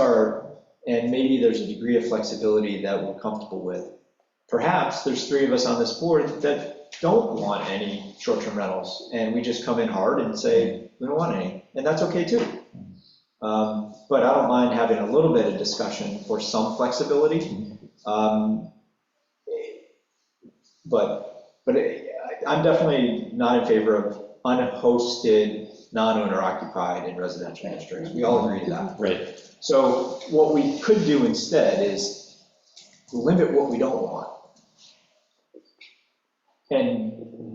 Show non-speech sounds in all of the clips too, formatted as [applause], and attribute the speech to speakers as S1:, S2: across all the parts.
S1: start, and maybe there's a degree of flexibility that we're comfortable with. Perhaps there's three of us on this board that don't want any short-term rentals, and we just come in hard and say, we don't want any, and that's okay too. Um, But I don't mind having a little bit of discussion for some flexibility. Um, But, but I- I'm definitely not in favor of unhosted, non-owner occupied in residential districts. We all agree to that.
S2: Right,
S1: So what we could do instead is limit what we don't want. And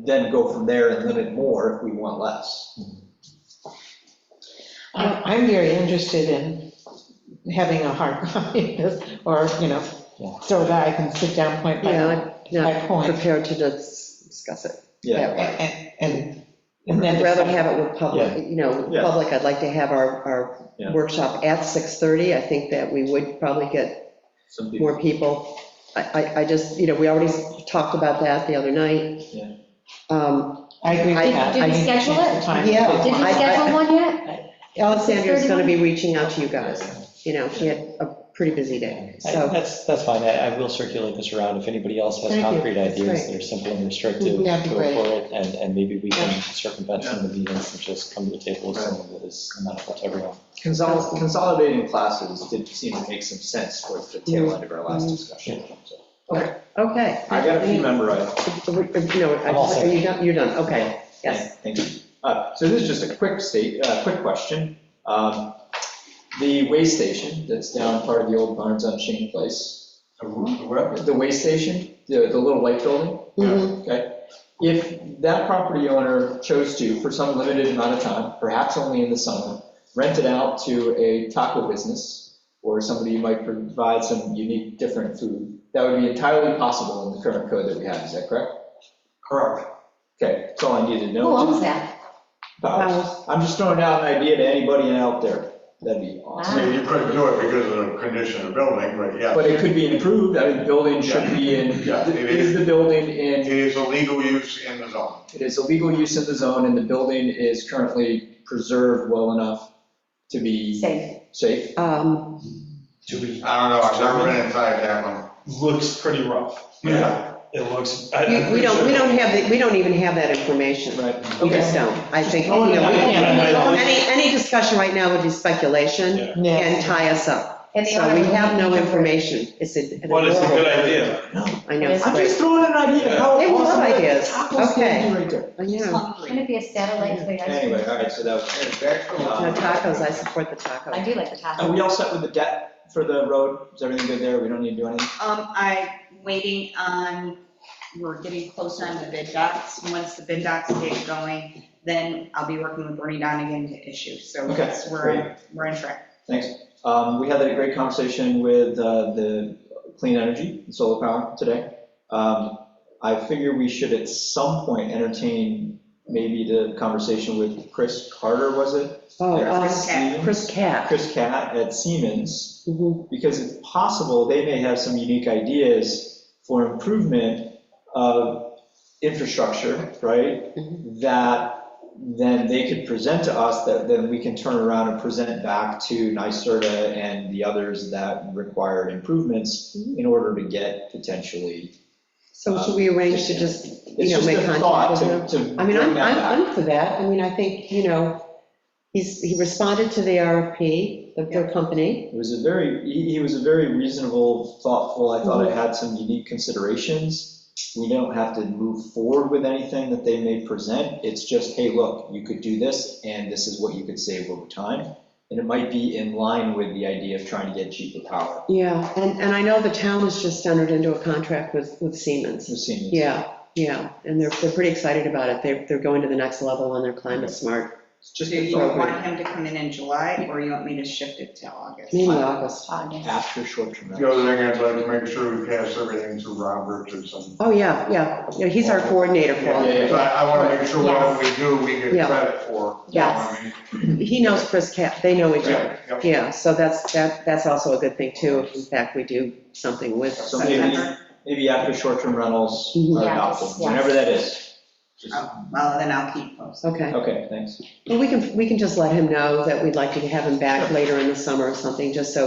S1: then go from there and limit more if we want less.
S3: I- I'm very interested in having a hard [laughs] copy of this, or, you know, so that I can sit down point by,
S4: Yeah, I'm
S3: by
S4: not
S3: point.
S4: prepared to dis- discuss it
S1: Yeah,
S4: that way.
S3: And, and and then.
S4: Rather
S3: decide.
S4: have it with public, you know, with
S1: Yeah.
S4: public, I'd like to have our, our
S1: Yeah.
S4: workshop at 6:30. I think that we would probably get
S1: some people,
S4: more people. I, I, I just, you know, we already talked about that the other night.
S1: Yeah.
S4: Um,
S3: I agree with
S4: I-
S3: that.
S5: did we
S3: I need to
S5: schedule
S3: take the
S5: it?
S3: time.
S4: Yeah.
S5: Did you
S4: I- I-
S5: schedule one yet?
S4: Alexandra's going to be reaching out to you guys. You know, she had a pretty busy day,
S2: I-
S4: so.
S2: that's, that's fine, I, I will circulate this around, if anybody else has
S3: Thank you.
S2: concrete ideas
S4: That's
S2: that are simple and restrictive,
S3: Mhm,
S2: go
S3: that'd be
S2: for
S3: great.
S2: it, and, and maybe we can circumvent some of the meetings and just come to the table with something that is amenable to everyone.
S1: consol- consolidating classes did seem to make some sense towards the tail end of our last discussion. So,
S4: Okay.
S1: I got a few memorized.
S4: No,
S2: I'm all set.
S4: are you done? You're done, okay. Yes.
S1: Thank you. Uh, So this is just a quick state, uh, quick question. Um, The way station that's down part of the old Barnes on Shane Place, the way station, the, the little white building,
S4: Mhm.
S1: okay? If that property owner chose to, for some limited amount of time, perhaps only in the summer, rent it out to a taco business or somebody who might provide some unique, different food, that would be entirely possible in the current code that we have, is that correct? Correct. Okay, that's all I needed to know.
S5: Who owns that?
S1: Powers. I'm just throwing out an idea to anybody out there. That'd be
S5: Wow.
S1: awesome.
S6: I mean, you couldn't do it because of the condition of the building, but yeah.
S1: But it could be improved. I mean, the building should be in,
S6: Yeah, it
S1: is the building in,
S6: It is a legal use in the zone.
S1: it is a legal use in the zone and the building is currently preserved well enough to be
S5: Safe.
S1: safe.
S4: Um,
S7: to be,
S6: I don't know, I've never been inside that one.
S7: looks pretty rough.
S6: Yeah.
S7: It looks. I-
S4: We
S7: I'm
S4: we
S7: pretty
S4: don't,
S7: sure-
S4: we don't have, the- we don't even have that information.
S1: Right.
S4: We
S1: Okay.
S4: just don't. I think, you
S7: Oh,
S4: know, we
S7: no, I
S4: can't,
S7: can't, I don't-
S4: any, any discussion right now would be speculation
S7: Yeah.
S4: and
S3: Yeah.
S4: tie us up.
S5: And the
S4: So
S5: owner-
S4: we have no information. It's a. an
S7: Well, it's a good
S4: adorable-
S7: idea.
S4: I know.
S5: It
S4: it's
S5: is
S1: I'm
S4: great.
S1: just throwing an idea. How
S4: They love
S1: awesome would
S4: ideas.
S1: tacos stand be right there?
S4: I know.
S5: Can it be a satellite to the ice cream?
S1: Anyway, all right, so that was.
S4: No
S1: uh,
S4: tacos, I support the
S5: I
S4: tacos.
S5: do like the taco.
S1: Are we all set with the debt for the road? Is everything good there? We don't need to do anything?
S8: Um, I'm waiting on, we're getting closer on the bid docs. Once the bid docs get going, then I'll be working with Bernie Donigan to issue. So
S1: Okay,
S8: that's where, we're in track.
S1: Um, We had a great conversation with uh, the clean energy, and solar power today. Um, I figure we should at some point entertain maybe the conversation with Chris Carter, was it?
S4: Oh, uh,
S1: Siemens?
S4: Chris Cat.
S1: Chris Cat at Siemens,
S4: Mhm.
S1: because it's possible they may have some unique ideas for improvement of infrastructure, right?
S4: Mm-hmm.
S1: That then they could present to us, that then we can turn around and present back to NYSERDA and the others that required improvements
S4: Mm-hmm.
S1: in order to get potentially.
S4: So should we arrange to just, you
S1: It's
S4: know,
S1: just
S4: make
S1: a thought
S4: contact with
S1: to,
S4: him?
S1: to
S4: I mean,
S1: bring
S4: I'm,
S1: that back.
S4: I'm, I'm for that. I mean, I think, you know, he's, he responded to the RFP, the, the company.
S1: It was a very, he, he was a very reasonable, thoughtful, I thought it had some unique considerations. We don't have to move forward with anything that they may present, it's just, hey, look, you could do this, and this is what you could save over time. And it might be in line with the idea of trying to get cheaper power,
S4: Yeah, and, and I know the town has just entered into a contract with, with Siemens.
S1: it seems.
S4: Yeah, yeah, and they're, they're pretty excited about it. They're, they're going to the next level on their climate smart,
S1: It's just
S8: Do
S1: a
S8: you
S1: thought,
S8: want him to come in in July or you want me to shift it to August?
S4: maybe August.
S1: after short-term
S6: The
S1: rentals.
S6: other thing I'd like to make sure we pass everything to Rob Richardson.
S4: Oh, yeah, yeah, yeah, he's our coordinator for all
S6: So
S4: that.
S6: I, I want to make sure what we do, we
S4: Yeah.
S6: get credit for. you know what I mean?
S4: He knows Chris Cap, they know each other.
S6: Yeah, yeah.
S4: Yeah, so that's, that, that's also a good thing too, if in fact we do something with.
S1: So maybe,
S8: September?
S1: maybe after short-term rentals
S4: Mhm.
S1: are
S5: Yes,
S1: adopted,
S5: yes.
S1: whenever that is. Just-
S8: Oh, Well, then I'll keep posted.
S4: Okay,
S1: Okay, thanks.
S4: well, we can, we can just let him know that we'd like to have him back later in the summer or something, just so